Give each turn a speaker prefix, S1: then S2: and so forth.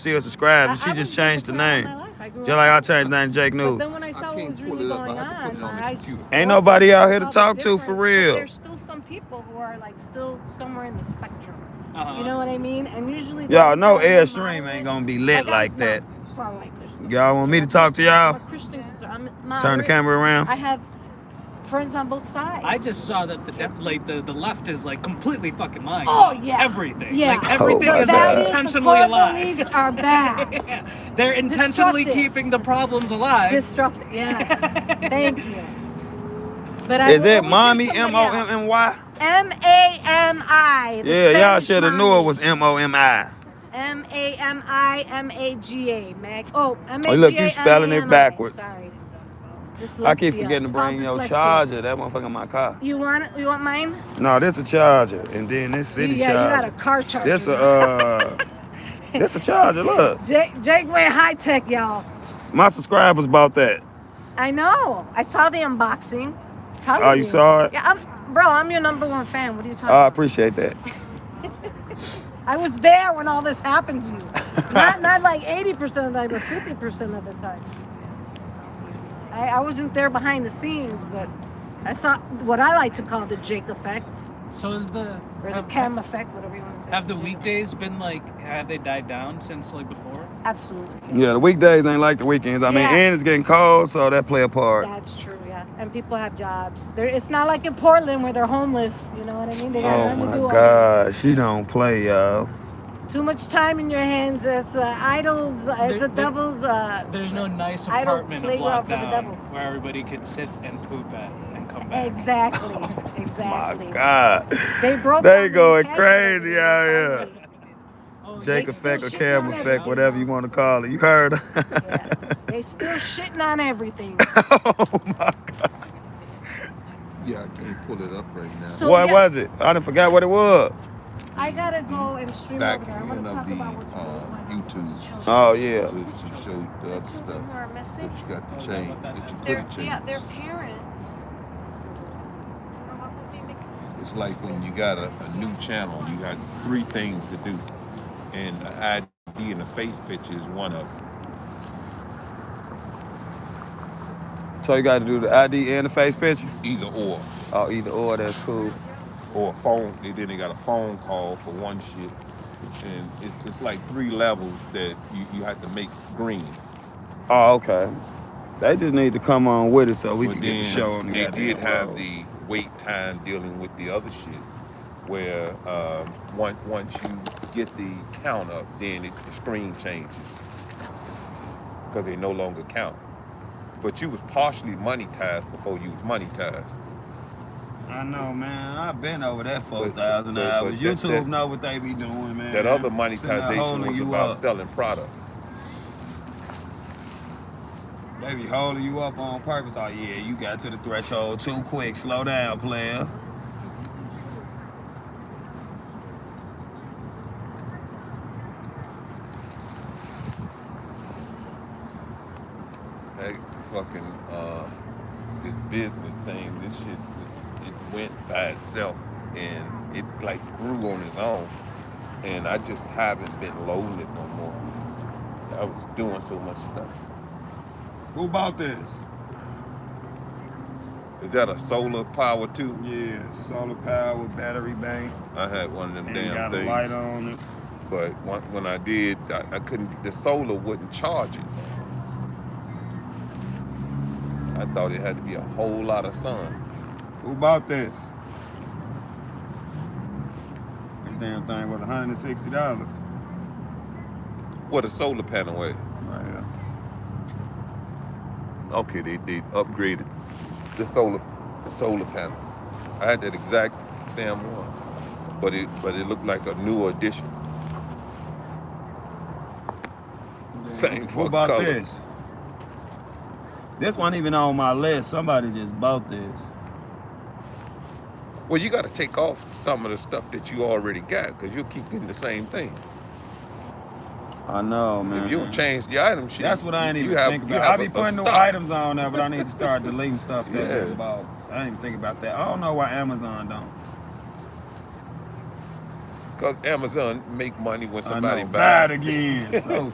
S1: See her subscribe, and
S2: I-
S1: she
S2: I
S1: just
S2: was
S1: changed the
S2: disappointed
S1: name.
S2: in my life. I grew
S1: Just
S2: up-
S1: like I changed the name Jake
S2: But
S1: News.
S2: then when I saw
S3: I
S2: what
S3: can't
S2: was
S3: pull
S2: really
S3: it up.
S2: going
S3: I have to put
S2: on,
S3: it on
S2: my
S3: the
S2: eyes
S3: computer.
S2: just
S1: Ain't
S2: broke
S1: nobody out here to
S2: about the
S1: talk to for
S2: difference, but
S1: real.
S2: There's still some people who are like still somewhere in the spectrum.
S4: Uh-huh.
S2: You know what I mean? And usually they're
S1: Y'all know
S2: really
S1: Airstream
S2: moderate.
S1: ain't gonna be lit
S2: I-
S1: like
S2: no,
S1: that.
S2: so I'm like, there's no-
S1: Y'all want me
S2: I'm
S1: to
S2: a
S1: talk to
S2: Christian-
S1: y'all?
S2: I'm a Christian, so I'm
S1: Turn the
S2: moderate.
S1: camera
S2: I
S1: around.
S2: have friends on both sides.
S4: I just saw that the def- like the, the left is like completely fucking lying.
S2: Oh, yeah.
S4: Everything.
S2: Yeah.
S4: Like everything
S1: my
S4: is
S1: God.
S2: Oh, that is the
S4: intentionally
S2: core
S4: alive.
S2: beliefs are bad.
S4: Yeah. They're intentionally
S2: Destructive.
S4: keeping the problems alive.
S2: Destructive. Yes. Thank you. But I
S1: Is
S2: will
S1: it
S2: always hear
S1: mommy M
S2: somebody
S1: O
S2: else.
S1: M M Y?
S2: M A M I. the
S1: Yeah, y'all
S2: Spanish
S1: should have knew it
S2: mommy.
S1: was M O M I.
S2: M A M I M A G A. Mag. Oh, M A G A.
S1: Oh, look, you spelling it backwards.
S2: Sorry.
S1: I keep
S2: Dyslexia.
S1: forgetting
S2: It's
S1: to
S2: called
S1: bring your
S2: dyslexia.
S1: charger. That motherfucker in my car.
S2: You want it? You want mine?
S1: No, this a charger, and then this
S2: You-
S1: city
S2: yeah, you
S1: charger.
S2: got a car charger.
S1: This a uh, this a charger. Look,
S2: Jake, Jake went high tech, y'all.
S1: my subscribers bought that.
S2: I know. I saw the unboxing. Telling
S1: Oh, you saw it? Uh,
S2: Yeah, I'm, bro. I'm your number one fan. What are you talking?
S1: I
S2: about?
S1: appreciate that.
S2: I was there when all this happened to you. not not like 80% of the time, but 50% of the time. I, I wasn't there behind the scenes, but I saw what I like to call the Jake effect
S4: So is the
S2: or the
S4: have,
S2: Cam effect, whatever you want to say.
S4: have the
S2: Jake effect.
S4: weekdays been like have they died down since like before?
S2: Absolutely.
S1: Yeah, the weekdays ain't like the weekends. I mean,
S2: Yeah.
S1: and it's getting cold, so that play a part.
S2: That's true, yeah. And people have jobs. There, it's not like in Portland where they're homeless. You know what I mean? They got
S1: Oh
S2: nothing to
S1: my
S2: do all day.
S1: God, she don't play, y'all.
S2: Too much time in your hands as uh, idols, as
S4: There-
S2: a
S4: there-
S2: devil's. Uh,
S4: There's no nice
S2: I don't
S4: apartment
S2: play
S4: of
S2: well for the
S4: lockdown
S2: Devils.
S4: where everybody could sit and poop at and come back.
S2: exactly.
S1: Oh My
S2: Exactly.
S1: God,
S2: They broke.
S1: They
S2: down the
S1: going
S2: academy.
S1: crazy out here.
S4: Oh,
S1: Jake
S2: They
S1: effect or
S2: still shitting
S1: cam
S2: on
S1: effect,
S2: everything.
S1: whatever you want to call it. You heard? her.
S2: Yeah. They still shitting on everything.
S1: oh my God,
S3: Yeah, I can't pull it up right now.
S2: So-
S1: what
S2: yeah.
S1: was it? I done forgot what it was.
S2: I gotta go and stream
S3: Back
S2: over there. I want
S3: end
S2: to
S3: of
S2: talk
S3: the,
S2: about what's
S3: uh,
S2: going on. with
S3: YouTube.
S2: these children.
S1: Oh
S3: to,
S1: yeah.
S3: to show the
S2: The children
S3: other
S2: who
S3: stuff
S2: are missing.
S3: that you got to change, that you could
S2: Their,
S3: have changed.
S2: yeah, their parents. are welcoming the-
S3: It's like when you got a, a new channel, you got three things to do. And an ID and a face picture is one of them.
S1: So you got to do the ID and the face picture.
S3: Either or.
S1: Oh, either or, that's cool.
S3: Or a phone, they then they got a phone call for one shit. And it's, it's like three levels that you, you have to make green.
S1: Oh, okay. They just need to come on with it so we
S3: But
S1: can get the
S3: then
S1: show on the
S3: They
S1: goddamn
S3: did have
S1: road.
S3: the wait time dealing with the other shit, where um, once once you get the count up, then it, the screen changes because they no longer count. But you was partially monetized before you was monetized.
S1: I know, man. I've been over that four
S3: But-
S1: thousand
S3: but-
S1: hours.
S3: but that-
S1: YouTube
S3: that-
S1: know what they be doing, man.
S3: That
S1: Sitting
S3: other
S1: there
S3: monetization
S1: holding
S3: was
S1: you
S3: about
S1: up.
S3: selling products.
S1: They be holding you up on purpose. Oh yeah, you got to the threshold too quick. Slow down, player.
S3: That fucking uh, this business thing, this shit, it, it went by itself and it like grew on its own. And I just haven't been loading it no more. I was doing so much stuff.
S1: Who bought this?
S3: Is that a solar power too?
S1: Yeah, solar power, battery bank,
S3: I had one of them
S1: and
S3: damn
S1: got
S3: things.
S1: a light on it.
S3: But when, when I did, I, I couldn't. The solar wouldn't charge it. I thought it had to be a whole lot of sun.
S1: Who bought this? This damn thing was $160.
S3: What a solar panel was.
S1: Right here.
S3: Okay, they, they upgraded the solar the solar panel. I had that exact damn one, but it but it looked like a newer edition. Same
S1: What
S3: fuck
S1: about
S3: color.
S1: this? This one even on my list. Somebody just bought this.
S3: Well, you got to take off some of the stuff that you already got because you'll keep getting the same thing.
S1: I know, man.
S3: If you don't change the item shit,
S1: Mm-hmm. That's what I ain't
S3: you
S1: even
S3: have-
S1: think
S3: you
S1: about.
S3: have
S1: I be
S3: a- a
S1: putting new
S3: stock.
S1: items on there, but I need to start deleting stuff that
S3: Yeah.
S1: was bought. I didn't even think about that. I don't know why Amazon don't.
S3: Because Amazon make money when
S1: I
S3: somebody
S1: know.
S3: buys.
S1: Buy it again. So